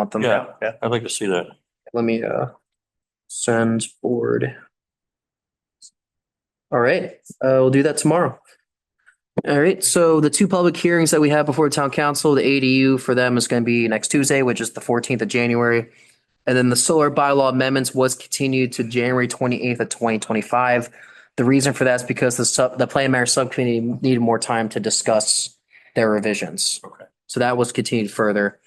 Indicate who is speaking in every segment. Speaker 1: Want them?
Speaker 2: Yeah.
Speaker 1: Yeah,
Speaker 2: I'd like to see that.
Speaker 1: let me, uh, send board. All right, uh, we'll do that tomorrow. All right, so the two public hearings that we have before town council, the ADU for them is gonna be next Tuesday, which is the fourteenth of January. And then the solar bylaw amendments was continued to January twenty eighth of twenty twenty five. The reason for that is because the sub, the plan mayor subcommittee needed more time to discuss their revisions.
Speaker 2: Okay.
Speaker 1: So that was continued further.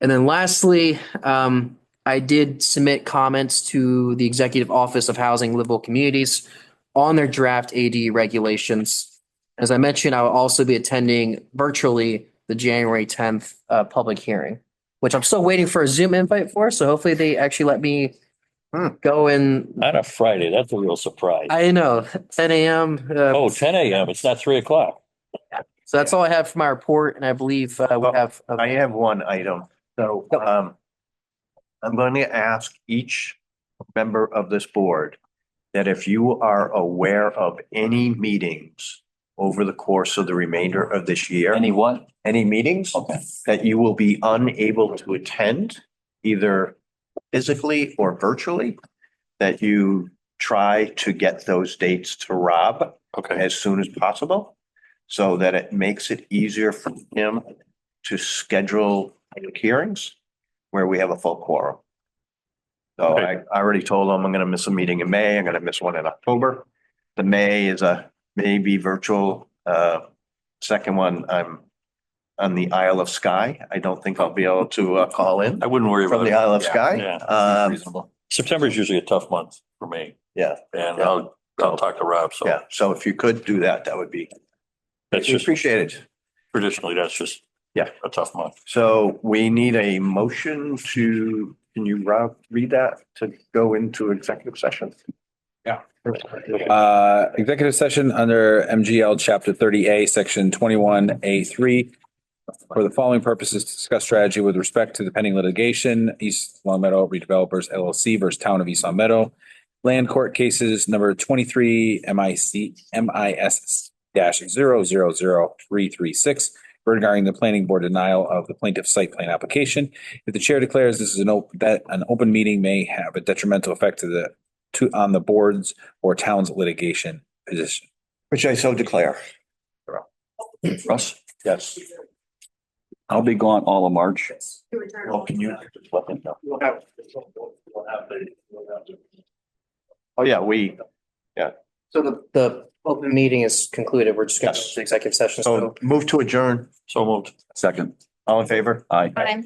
Speaker 1: And then lastly, um, I did submit comments to the Executive Office of Housing Livable Communities on their draft AD regulations. As I mentioned, I will also be attending virtually the January tenth uh public hearing, which I'm still waiting for a Zoom invite for, so hopefully they actually let me go in.
Speaker 2: On a Friday, that's a real surprise.
Speaker 1: I know, ten AM. uh,
Speaker 2: Oh, 10 AM, it's not three o'clock.
Speaker 1: So that's all I have for my report, and I believe uh we
Speaker 3: Well,
Speaker 1: have. uh,
Speaker 3: I have one item, so,
Speaker 1: Yep.
Speaker 3: um, I'm going to ask each member of this board that if you are aware of any meetings over the course of the remainder of this year,
Speaker 2: Anyone?
Speaker 3: any meetings
Speaker 2: Okay.
Speaker 3: that you will be unable to attend, either physically or virtually, that you try to get those dates to Rob
Speaker 2: Okay.
Speaker 3: as soon as possible so that it makes it easier for him to schedule public hearings where we have a full quorum. So I, I already told him I'm going to miss a meeting in May. I'm going to miss one in October. The May is a maybe virtual, uh, second one, I'm on the Isle of Skye. I don't think I'll be able to, uh, call in
Speaker 2: I wouldn't worry
Speaker 3: from
Speaker 2: about
Speaker 3: the
Speaker 2: it.
Speaker 3: Isle of Skye.
Speaker 2: Yeah.
Speaker 3: Um,
Speaker 2: September is usually a tough month for me
Speaker 3: yeah,
Speaker 2: and
Speaker 3: Yeah.
Speaker 2: I'll, I'll talk to Rob. So
Speaker 3: yeah. So if you could do that, that would be
Speaker 2: that's just
Speaker 3: appreciated.
Speaker 2: traditionally, that's just.
Speaker 3: Yeah.
Speaker 2: A tough month.
Speaker 3: So we need a motion to, can you Rob, read that to go into executive session?
Speaker 4: Yeah.
Speaker 3: Okay.
Speaker 4: Uh, executive session under MGL Chapter thirty A, Section twenty-one A three. For the following purposes, to discuss strategy with respect to the pending litigation, East Long Meadow Redevelopers LLC versus Town of East Long Meadow. Land court cases number twenty-three M I C, M I S dash zero zero zero three three six. Regarding the planning board denial of the plaintiff's site plan application. If the chair declares this is an open, that an open meeting may have a detrimental effect to the, to, on the board's or town's litigation position.
Speaker 3: Which I so declare.
Speaker 2: Russ?
Speaker 3: Yes.
Speaker 2: I'll be gone all of March.
Speaker 3: Well, can you?
Speaker 2: Let them know.
Speaker 3: Oh, yeah, we,
Speaker 1: So the the open meeting is concluded. We're just gonna go
Speaker 3: Yes.
Speaker 1: to executive
Speaker 3: oh,
Speaker 1: session.
Speaker 3: so move to adjourn.
Speaker 2: So moved.
Speaker 3: All in favor?
Speaker 5: Aye.